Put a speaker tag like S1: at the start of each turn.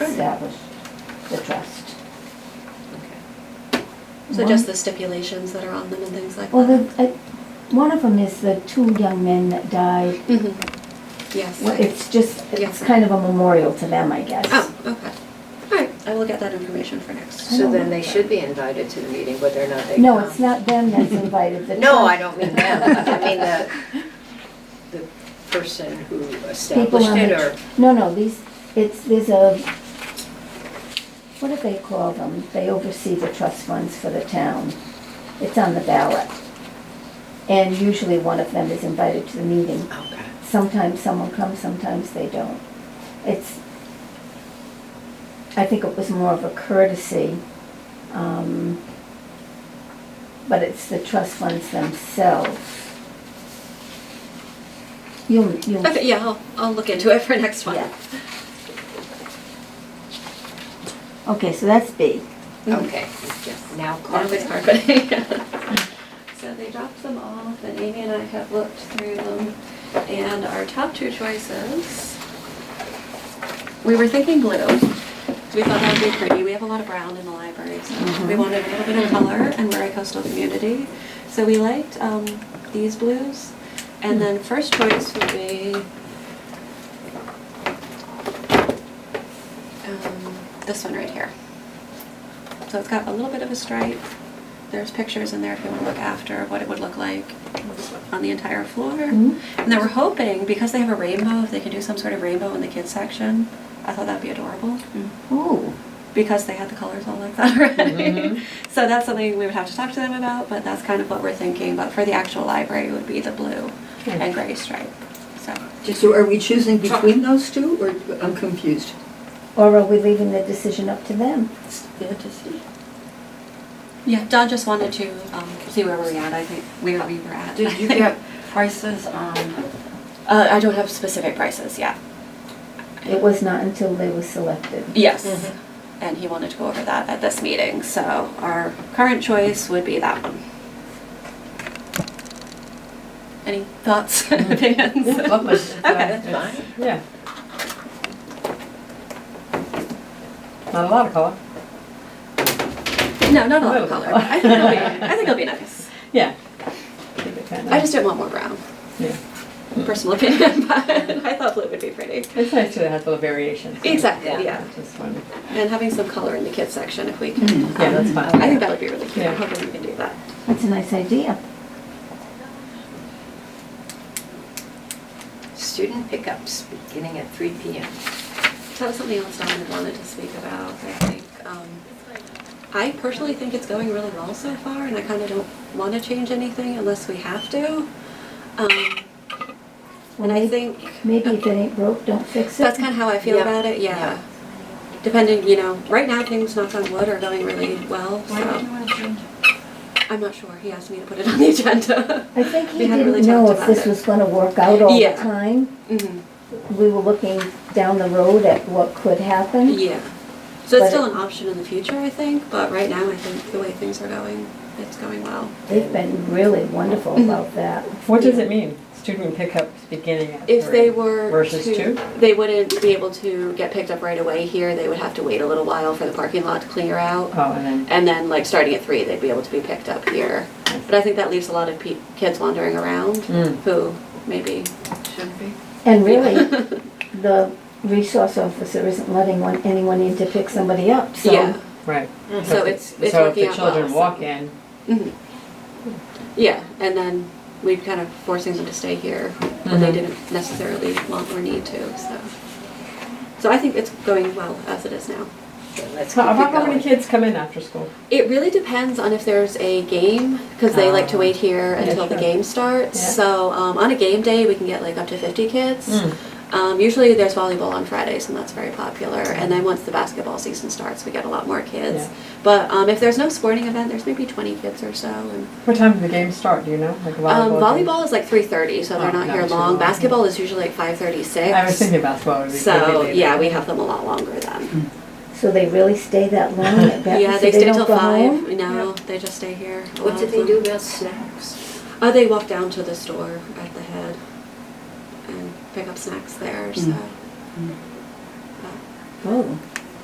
S1: established the trust.
S2: So just the stipulations that are on them and things like
S1: Well,
S2: that?
S1: the, uh, one of them is the two young men that died.
S2: Mhm. Yes.
S1: Well, it's just, it's
S2: Yes.
S1: kind of a memorial to them, I guess.
S2: Oh, okay. All right, I will get that information for next.
S1: I
S3: So
S1: don't
S3: then
S1: know.
S3: they should be invited to the meeting, whether or not they.
S1: Oh. No,
S3: come.
S1: it's not them that's invited, the
S3: No, I
S1: trust-
S3: don't mean them. I mean the, the person who
S1: People
S3: established
S1: on
S3: it
S1: the,
S3: or,
S1: tr- no, no, these, it's, there's a, what do they call them? They oversee the trust funds for the town. It's on the ballot. And usually one of them is invited to the meeting.
S3: okay.
S1: Sometimes someone comes, sometimes they don't. It's, I think it was more of a courtesy. um, But it's the trust funds themselves. You'll, you'll.
S2: Okay, yeah, I'll, I'll look into it for next one.
S1: Yeah. Okay, so that's B. mm-hmm.
S2: Mhm.
S3: Okay, just now
S2: Now it's
S3: carpet.
S2: carpeting. So they dropped them off, and Amy and I have looked through them, and our top two choices, we were thinking blue, because we thought that would be pretty, we have a lot of brown in the library, so we wanted a little bit of color, and we're a coastal community, so we liked um, these blues, and then first choice would be um, this one right here. So it's got a little bit of a stripe. There's pictures in there if you want to look after what it would look like on the entire floor.
S1: Mhm.
S4: Mm-hmm.
S2: And then we're hoping, because they have a rainbow, if they could do some sort of rainbow in the kids section, I thought that'd be adorable
S4: Mm.
S1: Ooh.
S2: because they had the colors all like that already.
S4: Mm-hmm.
S2: So that's something we would have to talk to them about, but that's kind of what we're thinking. But for the actual library, it would be the blue and gray stripe. So
S5: So are we choosing between those two, or I'm confused?
S1: Or are we leaving the decision up to them?
S2: yeah, Don just wanted to um, see where we're at. I think where we were at.
S4: Did you get prices on,
S2: Uh, I don't have specific prices yet.
S1: It was not until they were selected.
S2: Yes.
S6: Mm-hmm.
S2: And he wanted to go over that at this meeting, so our current choice would be that one. Any thoughts,
S6: Mm-hmm.
S2: opinions?
S4: what was?
S6: uh,
S2: Okay, that's
S3: Fine.
S6: Yeah. Not a lot of color.
S2: No, not a lot of
S6: uh,
S2: color.
S6: Little.
S2: but I think it'll be, I think it'll be nice.
S6: Yeah. Keep it kinda-
S2: I just didn't want more brown,
S6: Yeah.
S2: personal opinion, but I thought blue would be pretty.
S6: It's nice to have a little variation. so-
S2: Exactly,
S3: Yeah.
S2: yeah.
S6: Just one.
S2: And having some color in the kids section if we
S1: Hmm,
S2: can.
S6: Yeah, that's
S2: um,
S6: fine.
S2: I think that would be really cute.
S6: Yeah.
S2: I'm hoping we can do that.
S1: That's a nice idea.
S3: Student pickups beginning at three P M.
S2: That was something else Don had wanted to speak about, I think. Um, I personally think it's going really well so far, and I kind of don't want to change anything unless we have to. Um, And I think,
S1: Maybe if it ain't broke, don't fix it.
S2: that's kind of how I feel
S3: Yeah.
S2: about it, yeah. Depending, you know, right now, things, knock on wood, are going really well, so
S4: want to change it?
S2: I'm not sure. He asked me to put it on the agenda.
S1: I think he
S2: We hadn't
S1: didn't
S2: really
S1: know
S2: talked
S1: if
S2: about
S1: this
S2: it.
S1: was gonna work out all the
S2: Yeah.
S1: time.
S2: Mhm.
S1: We were looking down the road at what could happen.
S2: Yeah. So it's
S1: But
S2: still an option in the future, I think, but right now, I think the way things are going, it's going well.
S1: They've been really
S2: Mm-hmm.
S1: wonderful about that.
S6: What does it mean, student pickups beginning at?
S2: If
S6: three
S2: they were
S6: Versus
S2: to-
S6: two?
S2: They wouldn't be able to get picked up right away here. They would have to wait a little while for the parking lot to clear out.
S6: Oh, and then,
S2: And then, like, starting at three, they'd be able to be picked up here. But I think that leaves a lot of pe- kids wandering around
S6: Mm.
S2: who maybe.
S4: Shouldn't be.
S1: And really, the resource officer isn't letting one, anyone in to pick somebody up, so.
S2: yeah.
S6: right.
S2: Mm-hmm. So
S6: if-
S2: it's- it's
S6: So if
S2: working
S6: the
S2: out
S6: children
S2: well,
S6: walk
S2: so-
S6: in,
S2: Mhm. Mm-hmm. Yeah, and then we'd kind of forcing them to stay here when they
S6: Mhm.
S2: didn't necessarily want or need to. So, so I think it's going well as it is now.
S3: Let's keep
S6: how
S3: it
S6: about how many
S3: going.
S6: kids come in after school?
S2: It really depends on if there's a game because they like to
S6: Ah.
S2: wait here
S6: Yeah,
S2: until the
S6: sure.
S2: game starts.
S6: Yeah.
S2: So um, on a game day, we can get like up to 50 kids.
S6: Mm.
S2: Um, usually there's volleyball on Fridays, and that's very popular. And then once the basketball season starts, we get a lot more kids.
S6: Yeah.
S2: But um, if there's no sporting event, there's maybe 20 kids or so. And
S6: What time do the games start, do you know? Like
S2: Um,
S6: volleyball? games?
S2: volleyball is like three thirty, so they're
S6: Oh,
S2: not
S6: not
S2: here
S6: too
S2: long.
S6: long.
S2: Basketball is usually like five thirty six.
S6: I was thinking basketball would be. would
S2: So
S6: be later.
S2: yeah, we have them a lot longer
S6: Mm.
S2: then.
S1: So they really stay that long at Benton?
S2: yeah,
S1: so
S2: they, stay
S1: don't
S2: till
S1: go
S2: five.
S1: home?
S2: No, they just stay here. a
S3: What
S2: lot
S3: do
S2: of
S3: they
S2: them.
S3: do about snacks?
S2: Uh, they walk down to the store at the head and pick up snacks there. So.
S5: Mm.
S2: But
S1: Oh,